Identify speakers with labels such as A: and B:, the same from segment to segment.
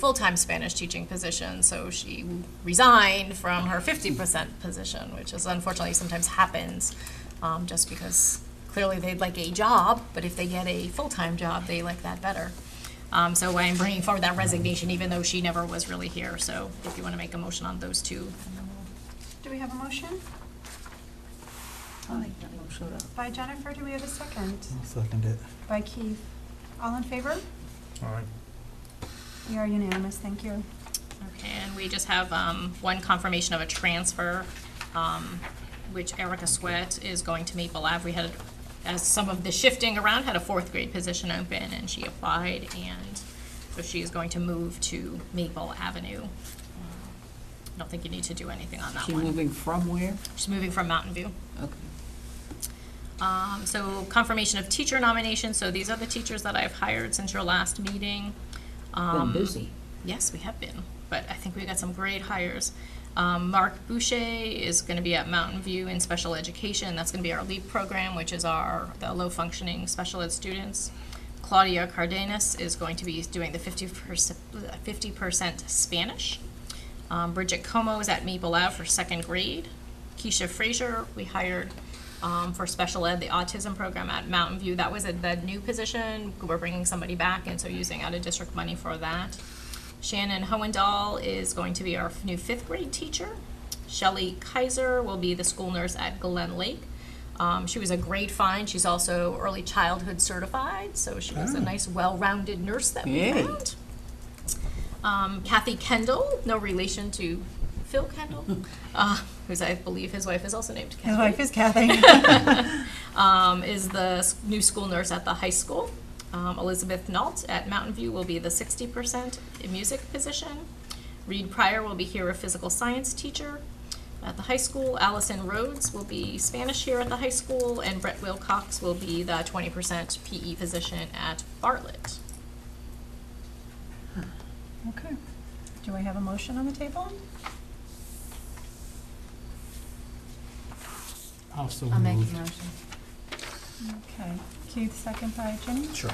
A: full-time Spanish teaching position, so she resigned from her 50% position, which is unfortunately sometimes happens, um, just because clearly they'd like a job, but if they get a full-time job, they like that better. Um, so I'm bringing forward that resignation, even though she never was really here, so if you want to make a motion on those two. and then we'll-
B: Do we have a motion?
C: I'll make that motion.
B: By Jennifer, do we have a second?
D: I'll Second it.
B: By Keith. All in favor?
E: All right.
B: We are unanimous, thank you.
A: Okay, and we just have, um, one confirmation of a transfer, um, which Erica Sweat is going to Maple Ave. We had, as some of the shifting around, had a fourth grade position open, and she applied, and so she is going to move to Maple Avenue. Um, I Don't think you need to do anything on that
C: She
A: one.
C: moving from where?
A: She's moving from Mountain View.
C: Okay.
A: Um, so confirmation of teacher nominations, so these are the teachers that I've hired since your last meeting.
C: Been
A: Um,
C: busy.
A: Yes, we have been, but I think we got some great hires. Um, Mark Boucher is going to be at Mountain View in special education. That's going to be our LEAP program, which is our the low functioning special ed students. Claudia Cardenas is going to be doing the 50%, 50% Spanish. Um, Bridget Como is at Maple Ave for second grade. Keisha Frazier, we hired um, for special ed, the autism program at Mountain View. That was a, the new position. We're bringing somebody back, and so using out of district money for that. Shannon Hohendahl is going to be our f- new fifth grade teacher. Shelley Kaiser will be the school nurse at Glen Lake. Um, she was a great find. She's also early childhood certified, so she was a nice, well rounded nurse that we
C: Yay.
A: found. Um, Kathy Kendall, no relation to Phil Kendall, uh, who's I believe his wife is also named Kathy
B: His wife is Kathy.
A: um, is the s- new school nurse at the high school. Um, Elizabeth Nault at Mountain View will be the 60% in music position. Reed Pryor will be here, a physical science teacher at the high school. Allison Rhodes will be Spanish here at the high school, and Brett Wilcox will be the 20% PE E position at Bartlett.
B: Okay. Do we have a motion on the table?
E: Also
F: I'll make
E: moved.
F: a motion.
B: Okay. Keith, second by Jenny.
D: Sure.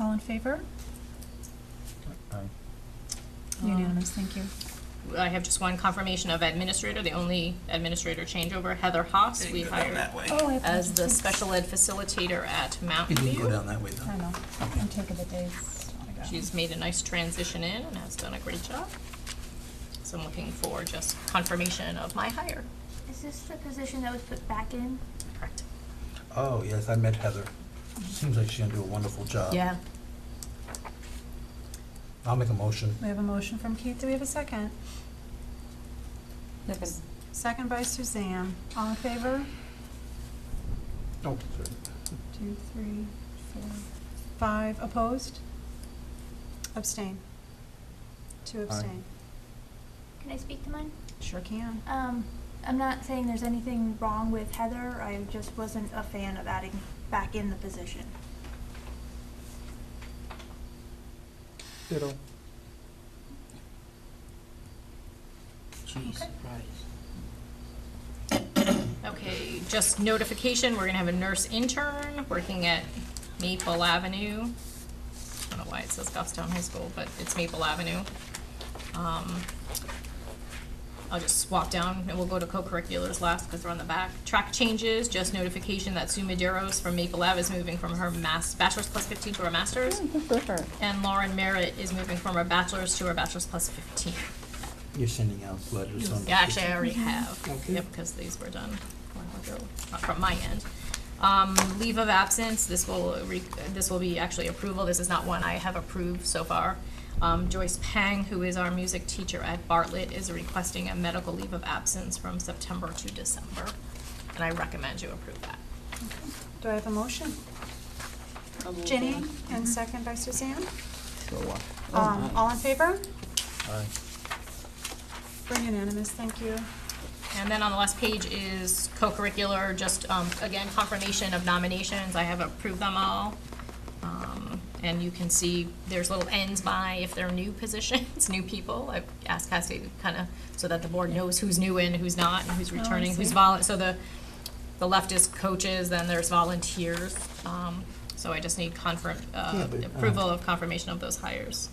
B: All in favor?
E: Aye.
B: Unanimous, thank you.
A: I have just one confirmation of administrator, the only administrator changeover, Heather Haas, we hired
D: way.
B: Oh, I
A: as the
B: apologize.
A: special ed facilitator at
D: You
A: Mountain View.
D: didn't go down that way though.
B: I know. I'm taking the days. I got it.
A: She's made a nice transition in and has done a great job. So I'm looking for just confirmation of my hire.
G: Is this the position that was put back in?
A: Correct.
D: Oh, yes, I met Heather. Seems like she's gonna do a wonderful job.
A: Yeah.
D: I'll make a motion.
B: We have a motion from Keith. Do we have a second?
C: Second.
B: Second by Suzanne. All in favor?
D: Oh,
B: Two, three, four, five. Opposed? Abstain. Two abstain.
G: Can I speak to mine?
B: Sure can.
G: Um, I'm not saying there's anything wrong with Heather, I just wasn't a fan of adding back in the position.
E: Ditto.
C: Jesus Christ.
A: Okay, just notification, we're gonna have a nurse intern working at Maple Avenue. I don't know why it says Goffstown High School, but it's Maple Avenue. Um, I'll just swap down and we'll go to co-curriculars last because we're on the back. Track changes, just notification that Sue Maderos from Maple Ave is moving from her mas- bachelor's plus fifteen to her master's. And Lauren Merritt is moving from her bachelor's to her bachelor's plus fifteen.
D: You're sending out letters on.
A: Yeah, actually, I already have.
D: Okay.
A: Yep, because these were done a while ago, not from my end. Um, leave of absence, this will, re- this will be actually approval, this is not one I have approved so far. Um, Joyce Pang, who is our music teacher at Bartlett, is requesting a medical leave of absence from September to December. And I recommend you approve that.
B: Do I have a motion?
C: I'll move
B: Jenny,
C: on.
B: and second by Suzanne.
C: Sure.
B: Um,
C: Oh,
B: all in favor?
E: Aye.
B: We're unanimous, thank you.
A: And then on the last page is co-curricular, just, um, again, confirmation of nominations, I have approved them all. Um, and you can see there's little ends by if they're new positions, new people, I've asked Cassie to kind of, so that the board knows who's new and who's not, and who's
B: Oh, I
A: returning, who's
B: see.
A: vol, so the, the left is coaches, then there's volunteers, um, so I just need confirm,
D: Yeah,
A: uh,
D: but, uh,
A: approval of confirmation of those hires.